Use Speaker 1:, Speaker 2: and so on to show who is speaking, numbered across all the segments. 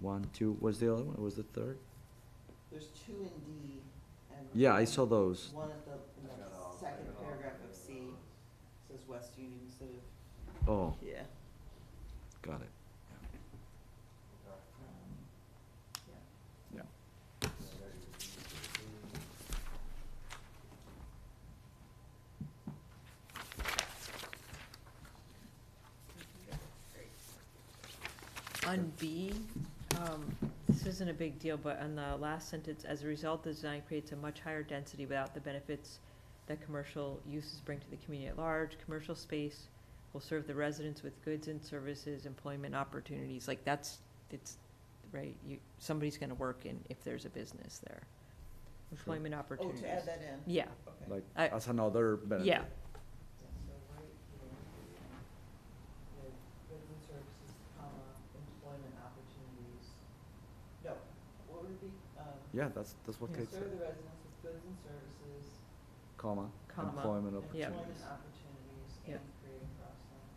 Speaker 1: One, two, was the other one, was the third?
Speaker 2: There's two in D and.
Speaker 1: Yeah, I saw those.
Speaker 2: One at the, in the second paragraph of C, says West Union instead of.
Speaker 1: Oh,
Speaker 2: Yeah.
Speaker 1: got it.
Speaker 2: um,
Speaker 1: Yeah.
Speaker 3: On B, um, this isn't a big deal, but on the last sentence, as a result, the design creates a much higher density without the benefits that commercial uses bring to the community at large. Commercial space will serve the residents with goods and services, employment opportunities, like that's, it's, right, you, somebody's gonna work in, if there's a business there. Employment
Speaker 2: Oh,
Speaker 3: opportunities.
Speaker 2: to add that in?
Speaker 3: Yeah,
Speaker 2: Okay.
Speaker 1: Like,
Speaker 3: I-
Speaker 1: as another benefit.
Speaker 3: yeah,
Speaker 2: Yeah, so right here, the goods and services, comma, employment opportunities. No, what would it be? Um,
Speaker 1: Yeah, that's, that's what
Speaker 3: Yeah.
Speaker 1: Kate
Speaker 2: Serve
Speaker 1: said,
Speaker 2: the residents with goods and services,
Speaker 1: comma,
Speaker 3: Comma.
Speaker 1: employment
Speaker 3: Yeah.
Speaker 1: opportunities.
Speaker 2: employment opportunities, and
Speaker 3: Yeah.
Speaker 2: creating cross-selling.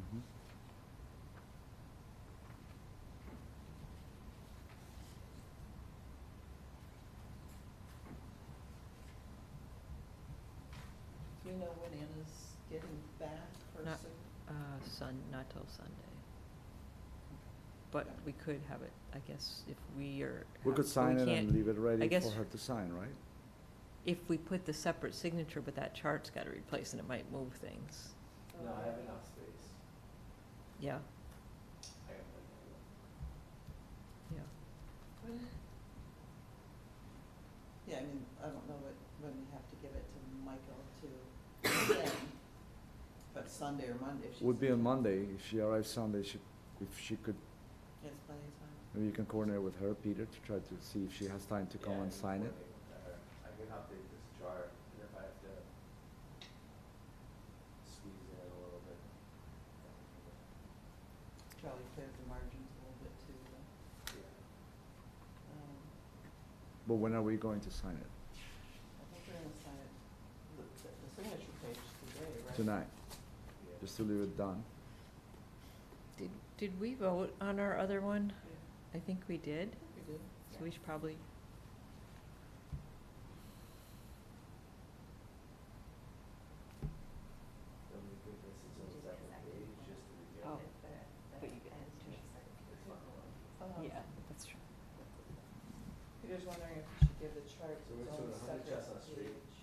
Speaker 1: Mhm.
Speaker 2: Do you know when Anna's getting back for
Speaker 3: Not-
Speaker 2: sig-
Speaker 3: uh, Sun, not till Sunday. But we could have it, I guess, if we are.
Speaker 1: We could
Speaker 3: we
Speaker 1: sign it
Speaker 3: can't-
Speaker 1: and leave it ready for
Speaker 3: guess-
Speaker 1: her to sign, right?
Speaker 3: if we put the separate signature, but that chart's gotta replace and it might move things.
Speaker 4: No, I have enough space.
Speaker 3: Yeah,
Speaker 4: I got plenty
Speaker 3: yeah.
Speaker 2: Yeah, I mean, I don't know what, when we have to give it to Michael to, send, but Sunday or Monday if she's.
Speaker 1: Would be on Monday, if she arrives Sunday, she, if she could,
Speaker 2: Yes, plenty of time.
Speaker 1: maybe you can coordinate with her, Peter, to try to see if she has time to
Speaker 4: of-
Speaker 1: come
Speaker 4: Yeah,
Speaker 1: and
Speaker 4: I can
Speaker 1: sign it.
Speaker 4: coordinate with her. I can update this chart, and if I have to squeeze it a little bit. then we can
Speaker 2: Charlie cleared the margins a little bit too, but,
Speaker 4: do it. Yeah.
Speaker 2: um,
Speaker 1: But when are we going to sign it?
Speaker 2: I think we're gonna sign it, the, the the signature page today, right?
Speaker 1: Tonight,
Speaker 4: Yeah.
Speaker 1: just to leave it done.
Speaker 3: Did, did we vote on our other one?
Speaker 2: Yeah, I
Speaker 3: I think we did,
Speaker 2: think we did.
Speaker 3: so we should probably,
Speaker 4: Don't we put this as a separate page, just to begin?
Speaker 3: oh,
Speaker 4: with?
Speaker 3: but you guys
Speaker 4: It's not a lot.
Speaker 2: Um,
Speaker 3: yeah, that's true.
Speaker 2: Peter's wondering if we should give the charts
Speaker 4: So
Speaker 2: its
Speaker 4: it's
Speaker 2: own
Speaker 4: sort of hundred
Speaker 2: separate
Speaker 4: Chestnut Street.
Speaker 2: page.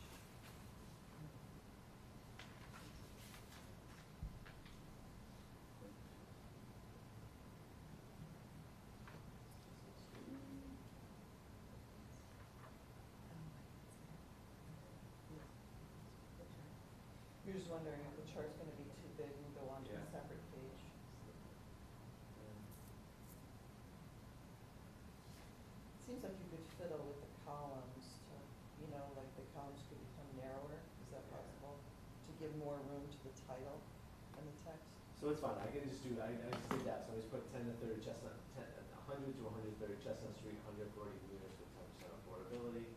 Speaker 2: You're just wondering if the chart's gonna be too big and go onto a
Speaker 4: Yeah.
Speaker 2: separate page. It Seems like you could fiddle with the columns to, you know, like the columns could become narrower, is that possible? To give more room to the title and the text?
Speaker 4: So it's fine, I can just do, I, I just did that, so I just put ten to thirty Chestnut, ten, a hundred to hundred thirty Chestnut Street, hundred forty meters with ten percent affordability.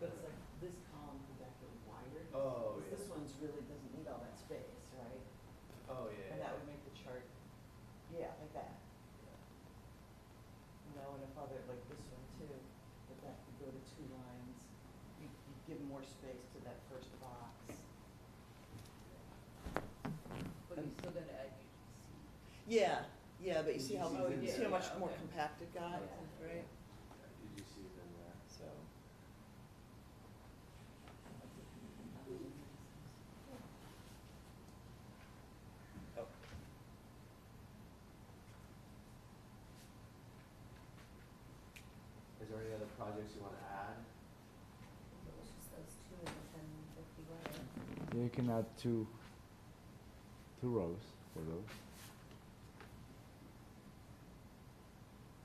Speaker 2: But it's like, this column could actually wider,
Speaker 4: Oh,
Speaker 2: because this one's really doesn't need all that space, right?
Speaker 4: Oh, yeah,
Speaker 2: And that
Speaker 4: yeah.
Speaker 2: would make the chart, yeah, like that, you know, and if other, like this one too, but that could go to two lines. You, you give more space to that first box.
Speaker 5: But you still gotta add your C.
Speaker 2: Yeah, yeah, but you see how,
Speaker 4: Oh,
Speaker 2: you
Speaker 4: yeah,
Speaker 2: see how much
Speaker 5: yeah,
Speaker 2: more
Speaker 5: okay.
Speaker 2: compact it got,
Speaker 5: Yeah.
Speaker 2: right?
Speaker 4: Did you see it in there?
Speaker 2: So.
Speaker 4: Is there any other projects you wanna add?
Speaker 5: It was just those two and then fifty-one.
Speaker 1: Yeah, you can add two, two rows for those.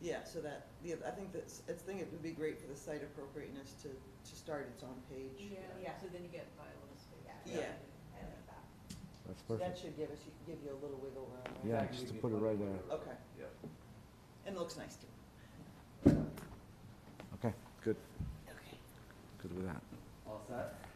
Speaker 2: Yeah, so that, yeah, I think that's, I think it would be great for the site appropriateness to, to start its own page.
Speaker 5: Yeah, so then you get violent space.
Speaker 2: Yeah.
Speaker 5: I like that.
Speaker 1: That's
Speaker 2: So that
Speaker 1: perfect.
Speaker 2: should give us, give you a little wiggle room, right?
Speaker 1: Yeah,
Speaker 4: In fact,
Speaker 1: just
Speaker 4: you
Speaker 1: to
Speaker 4: can
Speaker 1: put it
Speaker 4: put
Speaker 1: right
Speaker 4: whatever-
Speaker 2: there. Okay.
Speaker 4: Yep.
Speaker 2: And it looks nice too.
Speaker 1: Okay, good,
Speaker 2: Okay.
Speaker 1: good with that.
Speaker 4: All set?